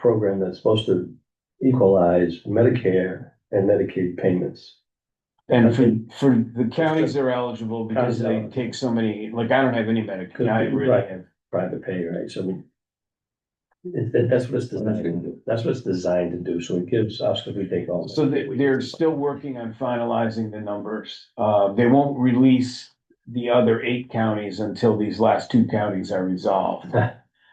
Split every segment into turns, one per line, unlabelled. program that's supposed to equalize Medicare and Medicaid payments.
And for, for the counties are eligible because
Counties are
they
eligible.
take so many, like, I don't have any Medicaid, I really
Right.
have.
Private pay, right? So we. it- that- that's what it's designed to do. That's what it's designed to do. So it gives us, because we take all.
So they, they're still working on finalizing the numbers. Uh, they won't release the other eight counties until these last two counties are resolved.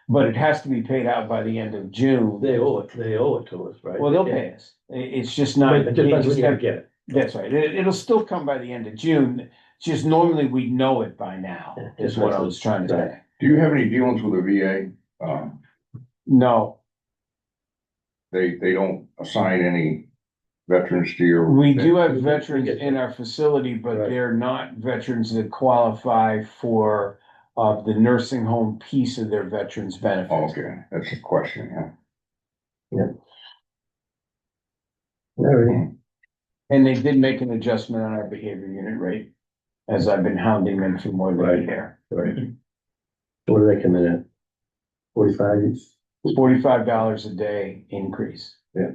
But it has to be paid out by the end of June.
They owe it, they owe it to us, right?
Well, they'll pay us. I- it's just not.
But it depends when
it's
you
not-
get it.
That's right. It, it'll still come by the end of June. It's Just normally we know it by now,
Yeah,
is what I was trying to
right.
say.
Do you have any dealings with the VA? Um,
No,
they, they don't assign any veterans to your.
We do
we
have
get-
veterans
we get-
in our facility, but
Right.
they're not veterans that qualify for uh, the nursing home piece of their veterans
Oh,
benefits.
Okay, that's a question, yeah.
All right.
And they did make an adjustment on our behavior unit rate, as I've been hounding them for more than a
Right.
year.
all right. What do they come in at? Forty-five?
Forty-five dollars a day increase.
Yeah.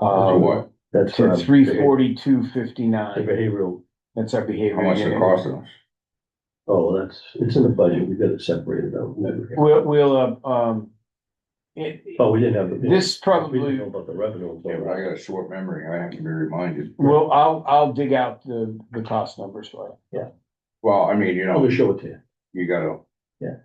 So
Uh,
what,
That's.
to
um,
three forty-two
The
fifty-nine,
behavioral,
that's our
how
behavior
much it
unit.
cost us?
oh, that's, it's in the budget. We got it separated out.
We'll, we'll, uh, um, it,
Oh, we didn't have. it.
this
We didn't know
probably,
about the revenue.
Yeah, but I got a short memory, I have to be reminded.
well, I'll, I'll dig out the, the cost numbers for you.
Well, I mean, you
I'll
know,
just show it to you.
you gotta.
Yeah.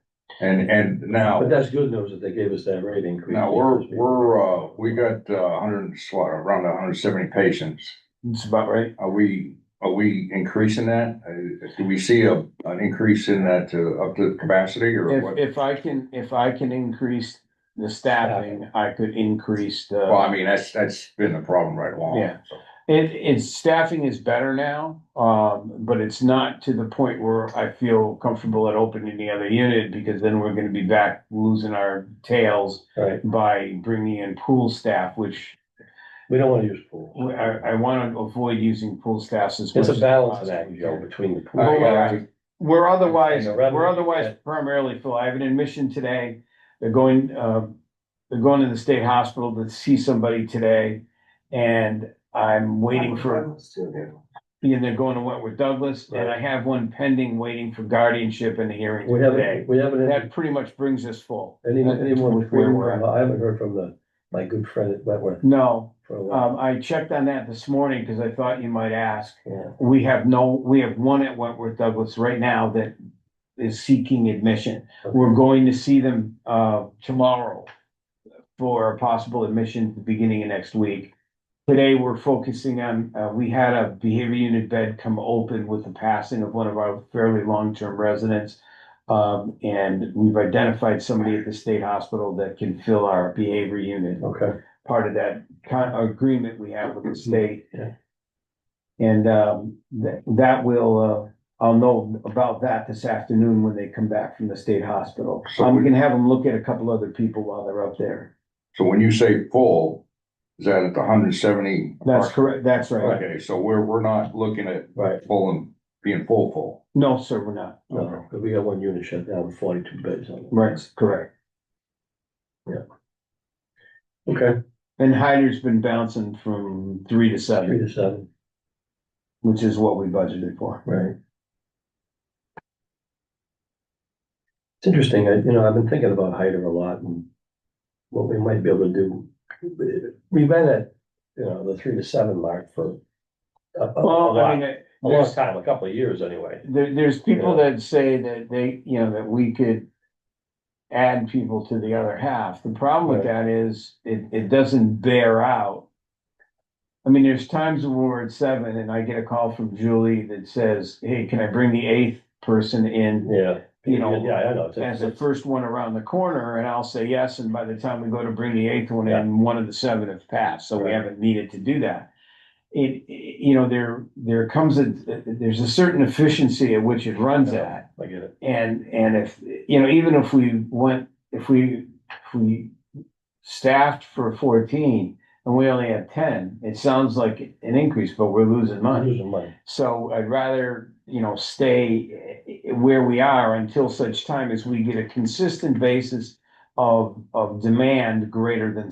And, and now,
But that's good news that they gave us that rate increase.
now we're, we're, uh, we got uh hundred and sli- around hundred and seventy patients.
That's about right.
Are we, are we increasing that? Uh, do we see a, an increase in that to, up to capacity or what?
If, if I can, if I can increase the staffing, I could increase
Well,
the,
I mean, that's, that's been the problem right along.
Yeah. it, it's, staffing is better now. Um, but it's not to the point where I feel comfortable at opening the other unit because then we're gonna be back losing our tails
Right,
by bringing in pool staff, which
we don't wanna use pool.
I, I wanna avoid using pool staffs as much.
It's a
as
balance
possible.
act, Joe, between the
I-
pool.
I-
We're otherwise,
And the revenue
we're otherwise primarily, Phil, I have an admission today, they're going, uh, they're going to the state hospital to see somebody today. And I'm waiting for, and they're going to Wentworth Douglas, and I
Right.
have one pending, waiting for guardianship and the hearing
We
today.
haven't, we haven't, had
That pretty much brings us full.
any, anyone,
That's where we're at.
I haven't heard from the, my good friend at Wentworth
No,
for a while.
um, I checked on that this morning, cause I thought you might ask.
Yeah.
We have no, we have one at Wentworth Douglas right now that is seeking admission. We're going to see them uh tomorrow for a possible admission at the beginning of next week. Today, we're focusing on, uh, we had a behavior unit bed come open with the passing of one of our fairly long-term residents. Um, and we've identified somebody at the state hospital that can fill our behavior unit
Okay,
part of that con- agreement we have with the state.
Mm-hmm. Yeah.
And um, that, that will, uh, I'll know about that this afternoon when they come back from the state hospital.
So
I'm
we-
gonna have them look at a couple other people while they're up there.
So when you say full, is that at the hundred and seventy?
That's correct, that's right.
Okay, so we're, we're not looking at
right,
full and being full, full.
No, sir, we're not.
no, 'cause we got one unit shut down, with forty-two beds on it.
Right, correct.
Okay,
And Hyder's been bouncing from three to
three
seven,
to seven,
which is what we budgeted for.
right. It's interesting, I, you know, I've been thinking about Hyder a lot and what we might be able to do. We've been at, you know, the three to seven mark for a, a- a
Well, I
lot.
mean,
A
there's,
long time, a couple of years anyway.
There, there's people
Yeah.
that say that they, you know, that we could add people to the other half. The problem with that is it, it doesn't bear out. I mean, there's times when we're at seven and I get a call from Julie that says, hey, can I bring the eighth person in
Yeah.
You know,
Yeah, I know. It's-
as the
it's-
first one around the corner? And I'll say yes. And by the time we go to bring the eighth one in, one of the seven have passed. So we
Right.
haven't needed to do that. It, it- you know, there, there comes a, there's a certain efficiency at which it runs at.
I get it.
And, and if, you know, even if we went, if we, if we staffed for fourteen and we only had ten, it sounds like an increase, but we're losing
I'm
money.
losing money.
So I'd rather, you know, stay eh, eh, where we are until such time as we get a consistent basis of, of demand greater than